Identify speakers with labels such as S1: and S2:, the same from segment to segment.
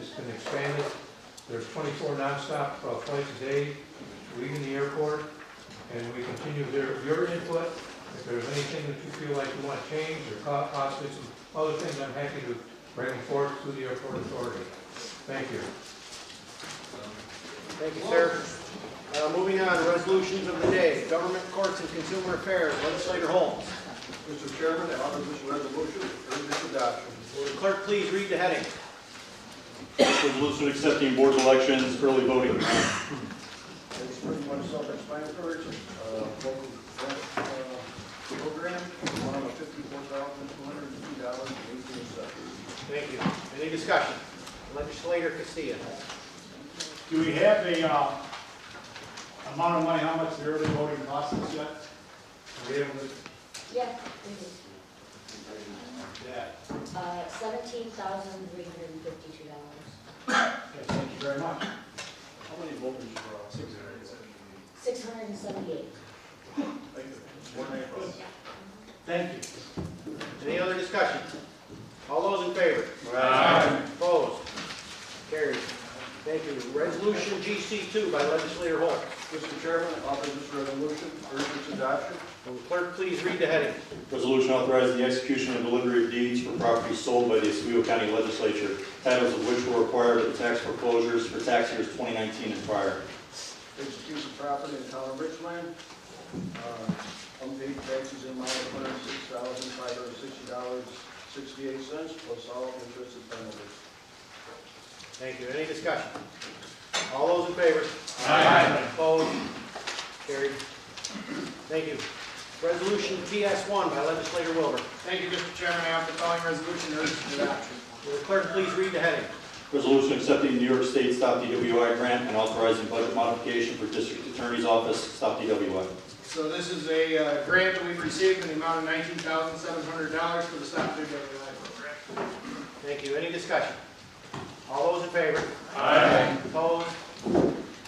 S1: it's been expanded. There's twenty-four nonstop uh, flights a day leaving the airport, and we continue their, your input. If there's anything that you feel like you want to change, or po- possibly some other things, I'm happy to bring them forth to the airport authority. Thank you.
S2: Thank you, sir. Uh, Moving on, resolutions of the day, government courts and consumer affairs, legislator Holmes.
S3: Mr. Chairman, I offer this resolution for urgent adoption.
S2: Will the clerk please read the heading?
S4: Resolution accepting board elections, early voting.
S3: It's pretty much self-explanatory, uh, local grant, uh, program, amount of fifty-four thousand, two hundred and two dollars and eighteen cents.
S2: Thank you. Any discussion? Legislator Castilla.
S5: Do we have a, uh, amount of money, how much the early voting costs us yet? Are we able to,
S6: Yes, it
S5: yeah,
S6: is, uh, seventeen thousand three hundred and fifty-two dollars,
S5: okay, thank you very much.
S3: How many voters were on? Six hundred.
S6: six hundred and seventy-eight.
S3: One April.
S5: Thank you.
S2: Any other discussion? All those in favor? Opposed? Carried. Thank you. Resolution GC2 by legislator Holmes.
S3: Mr. Chairman, I offer this resolution for urgent adoption.
S2: Will the clerk please read the heading?
S4: Resolution authorizing the execution and delivery of deeds for property sold by the Oswego County Legislature, titles of which were acquired at the tax foreclosures for tax years 2019 and prior.
S3: Execute the property in town of Richland. Uh, Unpaid taxes in amount of one hundred and six thousand, five hundred and sixty dollars, sixty-eight cents, plus all interest and penalties.
S2: Thank you. Any discussion? All those in favor? Opposed? Carried. Thank you. Resolution PS1 by legislator Wilbur.
S7: Thank you, Mr. Chairman. I offer the following resolution urgent adoption.
S2: Will the clerk please read the heading?
S4: Resolution accepting New York State Stop DWI grant and authorizing budget modification for District Attorney's Office, Stop DWI.
S7: So this is a uh, grant that we've received in the amount of nineteen thousand seven hundred dollars for the Stop DWI program.
S2: Thank you. Any discussion? All those in favor? Opposed?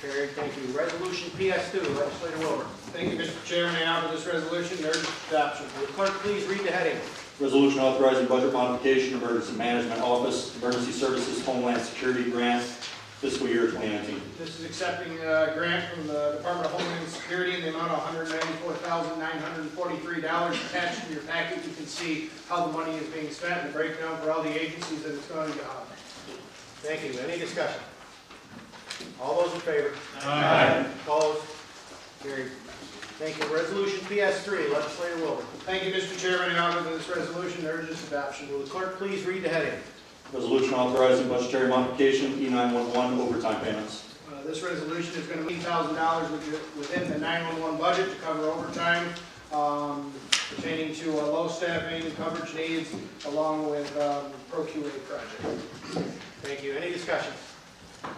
S2: Carried. Thank you. Resolution PS2, legislator Wilbur.
S7: Thank you, Mr. Chairman. I offer this resolution urgent adoption.
S2: Will the clerk please read the heading?
S4: Resolution authorizing budget modification, Emergency Management Office, Emergency Services Homeland Security Grant, fiscal year 2019.
S7: This is accepting a grant from the Department of Homeland Security in the amount of one hundred ninety-four thousand nine hundred forty-three dollars. Attached to your packet, you can see how the money is being spent and the breakdown for all the agencies that it's going to go on.
S2: Thank you. Any discussion? All those in favor? Opposed? Carried. Thank you. Resolution PS3, legislator Wilbur.
S7: Thank you, Mr. Chairman. I offer this resolution urgent adoption.
S2: Will the clerk please read the heading?
S4: Resolution authorizing budgetary modification, E E911 overtime payments.
S7: Uh, This resolution is going to be $1,000 with- within the 911 budget to cover overtime um, pertaining to uh, low staffing, coverage needs, along with um, ProQA project.
S2: Thank you. Any discussion?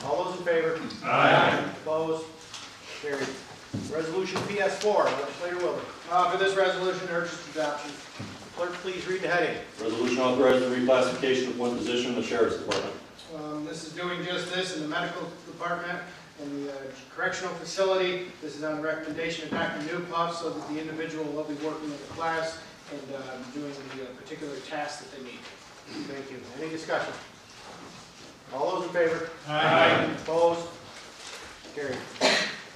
S2: All those in favor? Opposed? Carried. Resolution PS4, legislator Wilbur.
S7: Uh, For this resolution, urges adoption.
S2: Clerk, please read the heading.
S4: Resolution authorizing the reclassification of one position in the Sheriff's Department.
S7: Um, This is doing just this in the medical department and the uh, correctional facility. This is on the recommendation of Dr. Newpuff so that the individual will be working with the class and uh, doing the uh, particular tasks that they need.
S2: Thank you. Any discussion? All those in favor?
S5: Aye.
S2: Opposed? Carried.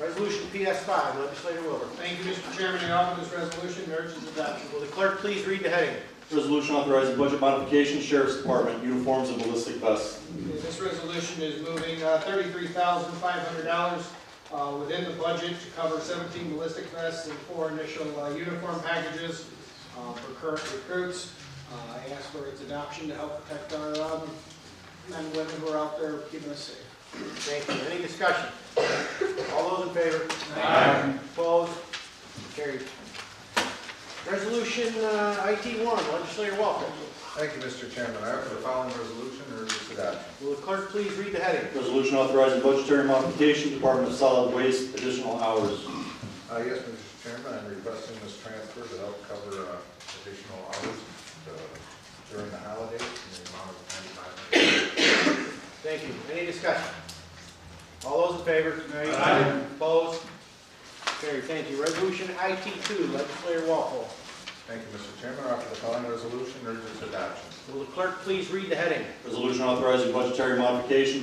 S2: Resolution PS5, legislator Wilbur.
S7: Thank you, Mr. Chairman. I offer this resolution and urge its adoption.
S2: Will the clerk please read the heading?
S4: Resolution authorizing budget modification, Sheriff's Department uniforms and ballistic vests.
S7: Okay, This resolution is moving uh, $33,500 uh, within the budget to cover 17 ballistic vests and four initial uh, uniform packages uh, for current recruits. Uh, I ask for its adoption to help protect our um, men and women who are out there keeping us safe.
S2: Thank you. Any discussion? All those in favor? Opposed? Carried. Resolution uh, IT1, legislator Walker.
S8: Thank you, Mr. Chairman. I offer the following resolution and urge its adoption.
S2: Will the clerk please read the heading?
S4: Resolution authorizing budgetary modification, Department of Solid Waste, additional hours.
S8: Uh, Yes, Mr. Chairman, I'm requesting this transfer to help cover uh, additional hours uh, during the holidays in the amount of $95.
S2: Thank you. Any discussion? All those in favor? Aye. Opposed? Carried. Thank you. Resolution IT2, legislator Walpole.
S8: Thank you, Mr. Chairman. I offer the following resolution and urge its adoption.
S2: Will the clerk please read the heading?
S4: Resolution authorizing budgetary modification,